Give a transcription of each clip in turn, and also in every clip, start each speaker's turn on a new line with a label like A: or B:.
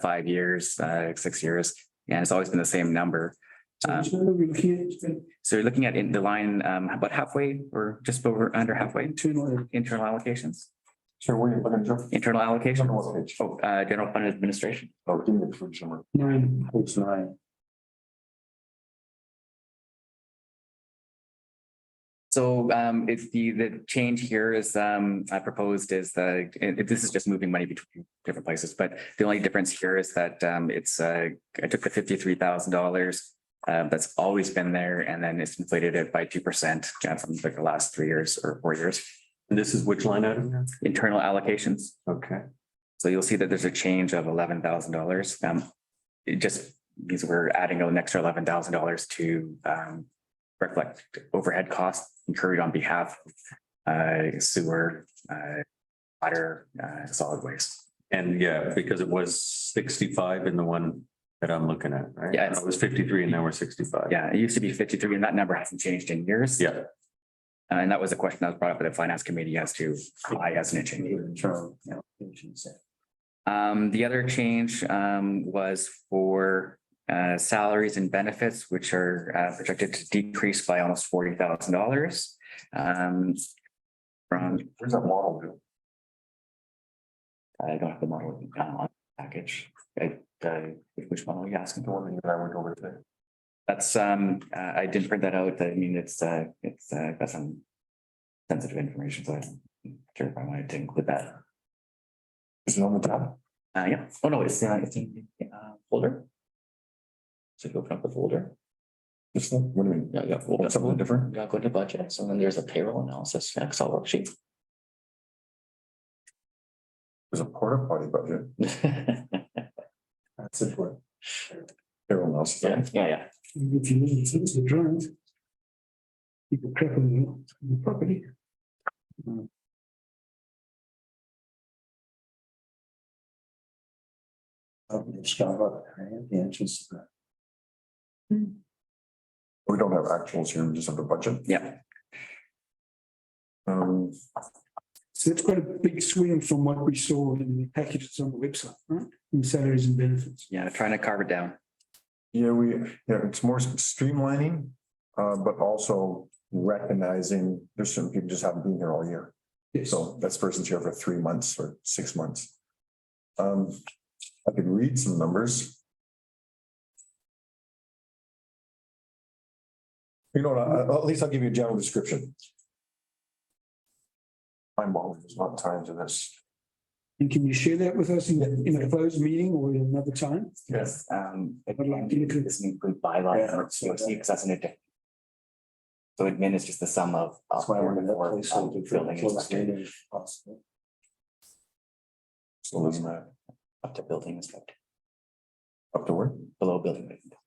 A: five years, uh, six years, and it's always been the same number. Um,
B: So we can't spend
A: So you're looking at in the line, um, about halfway or just over, under halfway,
B: internal.
A: internal allocations,
C: Sure, where are you looking, Joe?
A: internal allocation,
C: Number one page.
A: oh, uh, general fund administration.
C: Oh, give me the page number.
B: Nine.
C: Page nine.
A: So, um, if the, the change here is, um, I proposed is the, and this is just moving money between different places, but the only difference here is that, um, it's, uh, I took the fifty-three thousand dollars. Uh, that's always been there and then it's inflated it by two percent uh, from like the last three years or four years.
C: And this is which line item now?
A: internal allocations.
C: Okay.
A: So you'll see that there's a change of eleven thousand dollars. Um, it just means we're adding an extra eleven thousand dollars to um reflect overhead costs incurred on behalf of uh sewer, uh water, uh solid waste.
C: And yeah, because it was sixty-five in the one that I'm looking at, right?
A: Yeah, it's-
C: It was fifty-three and now we're sixty-five.
A: Yeah, it used to be fifty-three and that number hasn't changed in years.
C: Yeah.
A: Uh, And that was a question that was brought up by the finance committee as to why hasn't it changed? Um, the other change, um, was for, uh, salaries and benefits, which are, uh, projected to decrease by almost forty thousand dollars. Um, from,
C: Where's that model? Bill?
A: I don't have the model, uh, on the package, I, uh, which model are you asking
C: The
A: for?
C: one that you and I went over today.
A: That's, um, uh, I didn't print that out, I mean, it's, uh, it's, uh, got some sensitive information, so I'm sure if I wanted to include that.
C: Is it on the top?
A: Uh, yeah, oh no, it's, uh, it's in, the, uh, folder. So if you open up the folder.
C: This one? What do you mean?
A: Yeah, yeah.
C: Oh, Something different?
A: Yeah, go to budgets and then there's a payroll analysis Excel worksheet.
C: There's a porta potty budget. That's it. what- Everyone else.
A: Yeah, yeah,
B: If you listen to the drawings. You could crap on the property.
C: Um, We don't have actuals here, we just have the budget.
A: yeah.
C: Um,
B: So that's quite a big swing from what we saw in the packages on the website, right? In salaries and benefits.
A: Yeah, trying to carve it down.
C: Yeah, we, yeah, it's more streamlining, uh, but also recognizing there's some people just haven't been here all year.
B: Yes.
C: So that's person's here for three months or six months. Um, I could read some numbers. You know, what, I- I- at least I'll give you a general description. I'm always, there's not time to this.
B: And can you share that with us in, in a closed meeting or in another time?
A: Yes. Um, it
B: I'd like to look at-
A: doesn't include bylaw or COC because that's in a different. So admin is just the sum of.
C: That's why we're gonna
A: of-
C: play something
A: of
C: for
A: building
C: closed
A: inspector,
C: meeting. So doesn't that
A: Up to building inspector,
C: up to where?
A: below building. inspector.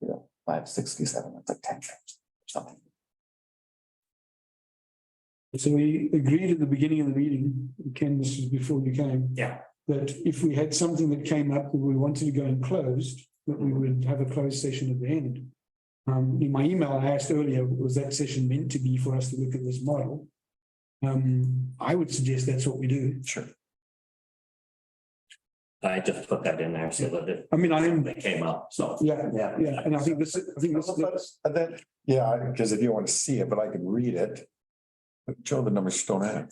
A: You know, Five sixty-seven, that's like ten, something.
B: So we agreed at the beginning of the meeting, Ken, this is before you came.
A: Yeah.
B: That if we had something that came up that we wanted to go in closed, that we would have a closed session at the end. Um, in my email, I asked earlier, was that session meant to be for us to look at this model? Um, I would suggest that's what we do.
C: Sure.
D: I just put that in there so that it
B: I mean, I am,
D: it came up, so.
B: yeah, yeah, and I think this, I think this,
C: And then, yeah, because if you want to see it, but I can read it. But Joe, the numbers don't add.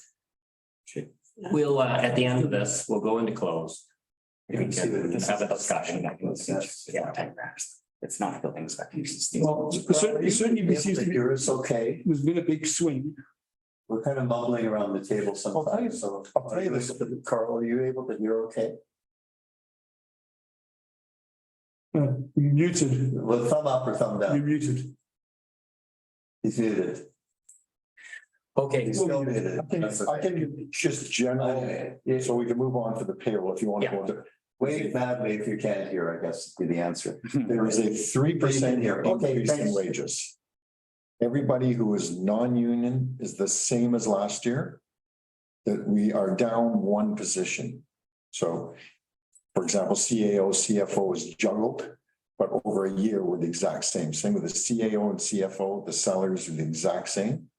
D: We'll, uh, at the end of this, we'll go into close.
A: You can see that this
D: Have a discussion.
A: Yeah, time graphs. It's not building inspector. it's just these-
B: well, certainly, certainly this seems to be,
E: Here is okay.
B: there's been a big swing.
E: We're kind of mumbling around the table
C: I'll tell you-
E: sometimes, so.
C: I'll tell you this.
E: Carl, are you able to hear okay?
B: Uh, muted,
E: With thumb up or thumb
B: you're
E: down?
B: muted.
E: He's muted.
D: Okay,
E: He's still muted.
C: I can- I can just general, so we can move on to the payroll if you want to go to.
E: Wave madly if you can't hear, I guess, would be the answer.
C: There is a three percent
E: Here, okay,
C: increase in
E: thanks.
C: wages. Everybody who is non-union is the same as last year. That we are down one position. So, for example, CAO, CFO is juggled, but over a year we're the exact same. Same with the CAO and CFO, the salaries are the exact same.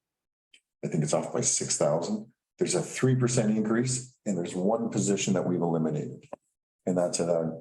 C: I think it's off by six thousand. There's a three percent increase and there's one position that we've eliminated. And that's it. I'm-